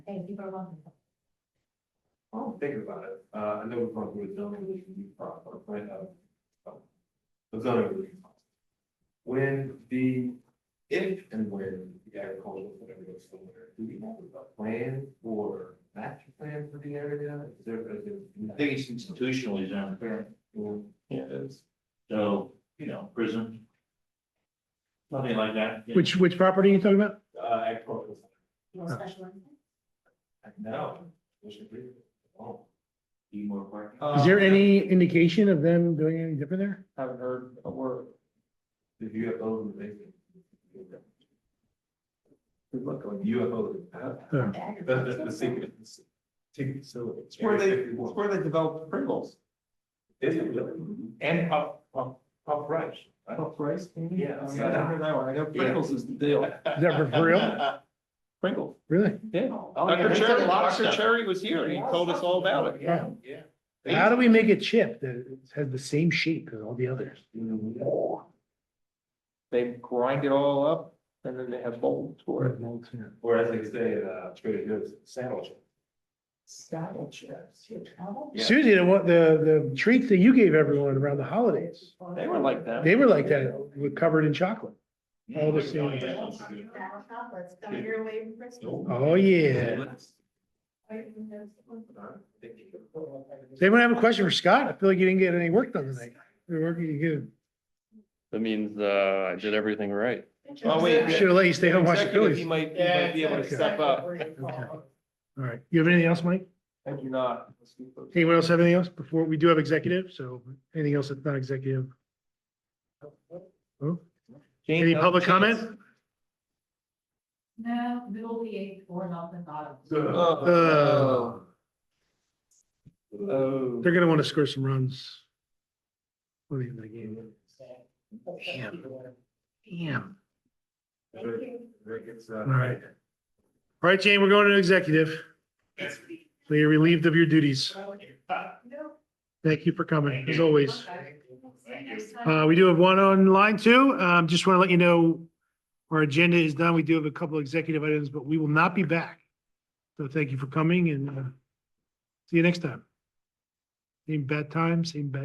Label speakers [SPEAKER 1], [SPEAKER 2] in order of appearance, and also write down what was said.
[SPEAKER 1] and people are welcome.
[SPEAKER 2] I'll think about it, uh, I know we've gone through a zoning review process, right, uh, the zoning review. process. When the, if and when the agricultural, whatever goes somewhere, do we have a plan for master plan for the area? Is there, is there?
[SPEAKER 3] I think it's institutionally zoned,
[SPEAKER 4] Yeah, it is.
[SPEAKER 3] so, you know, prison. Something like that. you know.
[SPEAKER 5] Which, which property are you talking about?
[SPEAKER 2] Uh, agricultural.
[SPEAKER 1] You want special one?
[SPEAKER 2] No. we should be- Oh.
[SPEAKER 3] Need more parking.
[SPEAKER 5] Is
[SPEAKER 4] Uh,
[SPEAKER 5] there any indication of them doing anything different there?
[SPEAKER 4] Um, Haven't heard a word.
[SPEAKER 2] UFO in the basement.
[SPEAKER 4] Good luck on
[SPEAKER 2] UFO.
[SPEAKER 5] Oh,
[SPEAKER 2] The, the, the secret. Ticket facility.
[SPEAKER 4] It's where they, it's where they developed Pringles
[SPEAKER 2] Is it really?
[SPEAKER 4] and Pop, Pop,
[SPEAKER 2] Pop Rice.
[SPEAKER 4] Pop Rice. maybe?
[SPEAKER 2] Yeah.
[SPEAKER 4] I don't know, I heard that one. I know Pringles is the deal.
[SPEAKER 5] Is that for-
[SPEAKER 4] uh,
[SPEAKER 5] for real?
[SPEAKER 4] Pringle,
[SPEAKER 5] Really?
[SPEAKER 4] yeah.
[SPEAKER 3] Oh, yeah,
[SPEAKER 4] Dr.
[SPEAKER 3] they
[SPEAKER 4] Cherry,
[SPEAKER 3] did a lot of
[SPEAKER 4] Dr.
[SPEAKER 3] stuff.
[SPEAKER 4] Cherry was here and he told us all about it.
[SPEAKER 5] Yeah.
[SPEAKER 2] Yeah.
[SPEAKER 5] How do we make a chip that has the same shape as all the others?
[SPEAKER 4] They grind it all up and then they have molds for it.
[SPEAKER 2] Or as they say, uh, Trader Joe's sandwich.
[SPEAKER 1] Saddle chips. You travel?
[SPEAKER 2] Yeah.
[SPEAKER 5] Susie, the, one- the, the treats that you gave everyone around the holidays,
[SPEAKER 4] They were like that.
[SPEAKER 5] they were like that, were covered in chocolate. All the same.
[SPEAKER 1] Saddle chocolates, come your way from Bristol.
[SPEAKER 5] Oh, yeah. Does anyone have a question for Scott? I feel like you didn't get any work done tonight. You're working, you
[SPEAKER 6] That means, uh, I did everything right.
[SPEAKER 4] Oh, wait,
[SPEAKER 5] should have let you stay home and watch the
[SPEAKER 4] Executive,
[SPEAKER 5] Phillies.
[SPEAKER 4] He
[SPEAKER 5] All
[SPEAKER 4] might, he might be able to step up.
[SPEAKER 5] right. You have anything else, Mike?
[SPEAKER 4] I do not.
[SPEAKER 5] Anyone else have anything else before? We do have executive, so anything else that's not executive? Oh,
[SPEAKER 4] Jane,
[SPEAKER 5] Any
[SPEAKER 4] no
[SPEAKER 5] public
[SPEAKER 4] chance?
[SPEAKER 5] comment?
[SPEAKER 1] No, middle of the eighth, four nothing bottom.
[SPEAKER 2] uh,
[SPEAKER 5] Uh,
[SPEAKER 4] Oh, oh.
[SPEAKER 5] They're gonna want to score some runs. At the end of the game. Damn. Damn.
[SPEAKER 1] Thank you.
[SPEAKER 2] All
[SPEAKER 5] right. All right, Jane, we're going to executive. So you're relieved of your duties.
[SPEAKER 1] No.
[SPEAKER 5] Thank you for coming, as always.
[SPEAKER 1] See you next time.
[SPEAKER 5] Uh, we do have one on line two. Um, just want to let you know our agenda is done. We do have a couple of executive items, but we will not be back. So thank you for coming and uh, see you next time. Same bad time, same bad.